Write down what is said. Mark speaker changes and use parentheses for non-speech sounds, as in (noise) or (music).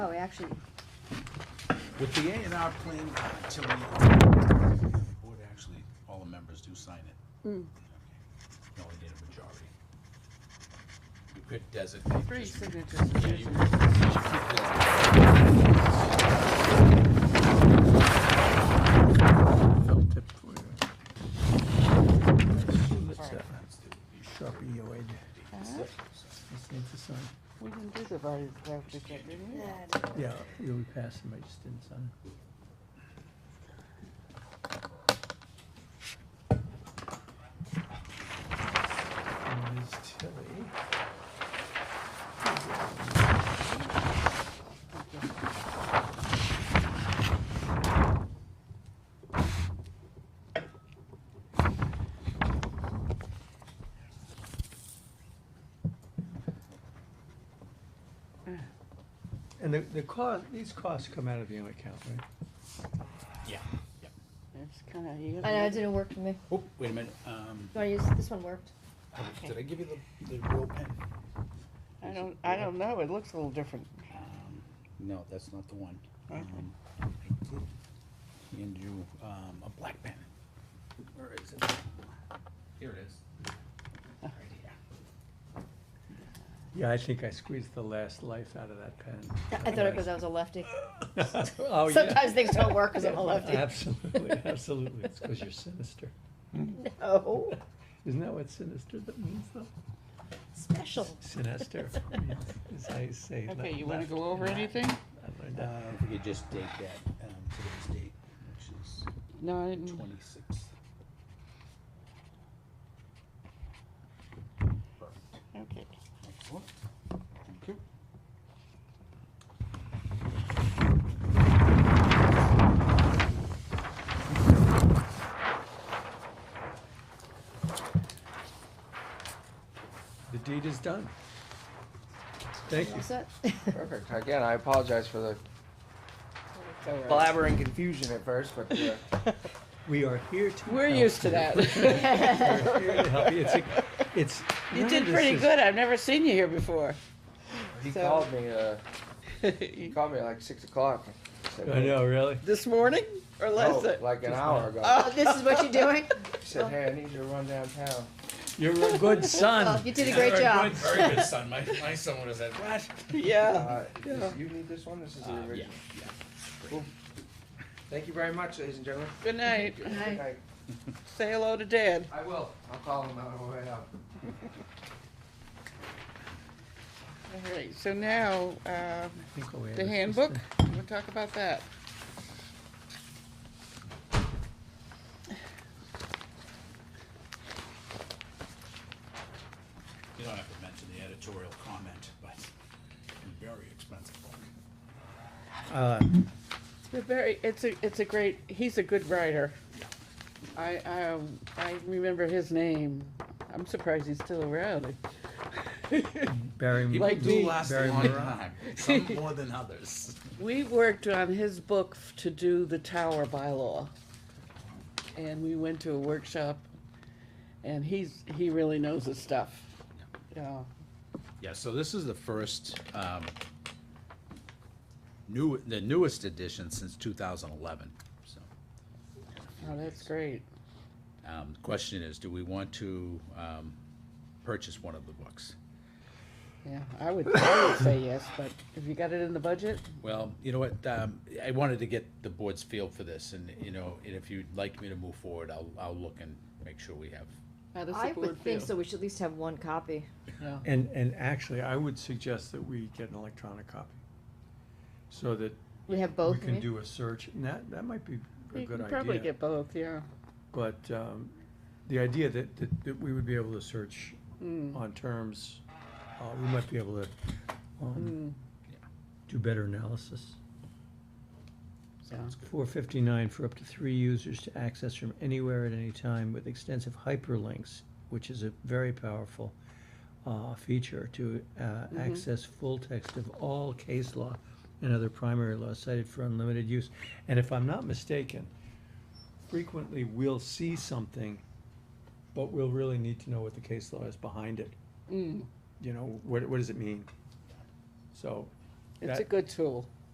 Speaker 1: actually,
Speaker 2: With the A and R plan, uh, Tilly, uh, board actually, all the members do sign it.
Speaker 1: Mm.
Speaker 2: Okay. No, we need a majority. You could designate.
Speaker 3: Three
Speaker 2: just-
Speaker 3: signatures is
Speaker 2: Yeah, you-
Speaker 3: usually-
Speaker 2: you should keep this.
Speaker 4: felt tip for you. Let's, uh, Sharpie your aid.
Speaker 3: Huh?
Speaker 4: Just need to sign.
Speaker 3: We didn't do the voting stuff before, didn't we?
Speaker 4: Yeah, you will pass them, I just didn't sign. And Ms. Tilly. And the, the cost, these costs come out of the other account, right?
Speaker 2: Yeah, yeah.
Speaker 3: It's kinda, you
Speaker 5: I know, it
Speaker 3: gotta,
Speaker 5: didn't work for me.
Speaker 2: Oh, wait a minute, um,
Speaker 5: Do I use, this one worked.
Speaker 2: did I give you the, the real pen?
Speaker 3: I don't, I don't know, it looks a little different.
Speaker 2: Um, No, that's not the one.
Speaker 3: Okay.
Speaker 2: Um, I did hand you, um, a black pen. Where is it? Here it is. Right here.
Speaker 4: Yeah, I think I squeezed the last life out of that pen.
Speaker 5: I I thought it because I was a lefty.
Speaker 4: (laughs) Oh, yeah.
Speaker 5: Sometimes things don't work because I'm a lefty.
Speaker 4: (laughs) Absolutely, absolutely. It's because you're sinister.
Speaker 5: No,
Speaker 4: Isn't that what sinister that means though?
Speaker 5: (laughs) special.
Speaker 4: Sinister, (laughs) as I say. le-
Speaker 3: Okay, you wanna
Speaker 4: left
Speaker 3: go over
Speaker 4: and
Speaker 3: anything?
Speaker 4: right. I learned
Speaker 2: Uh,
Speaker 4: that.
Speaker 2: If we could just date that, um, today's date, which is
Speaker 3: No, I didn't,
Speaker 2: twenty-sixth.
Speaker 3: okay.
Speaker 2: Excellent. Thank you.
Speaker 4: The deed is done. Thank you.
Speaker 5: Is that- (laughs)
Speaker 6: Perfect. Again, I apologize for the blabber and confusion at first, but uh,
Speaker 4: We are here to
Speaker 3: We're
Speaker 4: help
Speaker 3: used to
Speaker 4: you.
Speaker 3: that. (laughs)
Speaker 4: We're here to help you. It's, a- it's.
Speaker 3: You
Speaker 4: none
Speaker 3: did
Speaker 4: of this
Speaker 3: pretty
Speaker 4: is-
Speaker 3: good, I've never seen you here before.
Speaker 6: he
Speaker 3: So-
Speaker 6: called me. Uh, he called me at like six o'clock. Said,
Speaker 4: I know, really.
Speaker 3: This morning or
Speaker 6: No,
Speaker 3: last? night?
Speaker 6: like an hour ago.
Speaker 5: Oh, this is what you're doing?
Speaker 6: He said, "Hey, I need you to run downtown."
Speaker 4: You're a good
Speaker 5: Oh,
Speaker 4: son.
Speaker 5: You did a great job.
Speaker 2: Very good son, my, my son would have said, what?
Speaker 3: Yeah.
Speaker 6: Uh, this- you need this one. This is the
Speaker 2: Uh,
Speaker 6: original.
Speaker 2: yeah,
Speaker 6: Cool. Thank you very much, ladies and gentlemen.
Speaker 3: Good night.
Speaker 5: Hi.
Speaker 6: I,
Speaker 3: Say hello to Dad.
Speaker 6: I will. I'll call him on the way out.
Speaker 3: All right, so now, um,
Speaker 4: I think I'll add
Speaker 3: the
Speaker 4: this
Speaker 3: handbook,
Speaker 4: to-
Speaker 3: we'll talk about that.
Speaker 2: You don't have to mention the editorial comment, but very expensive book.
Speaker 4: Uh,
Speaker 3: They're very, it's a, it's a great, he's a good writer. I, um, I remember his name. I'm surprised he's still around.
Speaker 4: Barry.
Speaker 2: People do
Speaker 3: me.
Speaker 2: last a
Speaker 4: Barry
Speaker 2: long
Speaker 4: Monroe.
Speaker 2: time, some more than others.
Speaker 3: We worked on his book f- to do the tower bylaw. And we went to a workshop and he's, he really knows his stuff. Yeah,
Speaker 2: Yeah, so this is the first, um, new, the newest edition since two thousand eleven, so.
Speaker 3: oh, that's great.
Speaker 2: Um, the question is, do we want to, um, purchase one of the books?
Speaker 3: Yeah, I would, I would say yes, but if you got it in the budget,
Speaker 2: Well, you know what, um, I wanted to get the board's feel for this, and, you know, and if you'd like me to move forward, I'll, I'll look and make sure we have.
Speaker 3: how does
Speaker 5: I
Speaker 3: the board
Speaker 5: would
Speaker 3: feel?
Speaker 5: think so, we should at least have one copy.
Speaker 3: Yeah.
Speaker 4: And, and actually, I would suggest that we get an electronic copy. So that
Speaker 5: We have both,
Speaker 4: we
Speaker 5: you
Speaker 4: can
Speaker 5: mean?
Speaker 4: do a search, and that, that might be a
Speaker 3: You
Speaker 4: good
Speaker 3: can
Speaker 4: idea.
Speaker 3: probably get both, yeah.
Speaker 4: But, um, the idea that, that, that we would be able to search
Speaker 3: Mm.
Speaker 4: on terms, uh, we might be able to,
Speaker 3: Mm.
Speaker 4: um, do better analysis.
Speaker 3: Sounds
Speaker 4: Four fifty-nine for up to three users to access from anywhere at any time with extensive hyperlinks, which is a very powerful, uh, feature to, uh,
Speaker 3: Mm-hmm.
Speaker 4: access full text of all case law and other primary law cited for unlimited use. And if I'm not mistaken, frequently we'll see something, but we'll really need to know what the case law is behind it.
Speaker 3: Mm.
Speaker 4: You know, what, what does it mean? So,
Speaker 3: It's a
Speaker 4: that,
Speaker 3: good tool.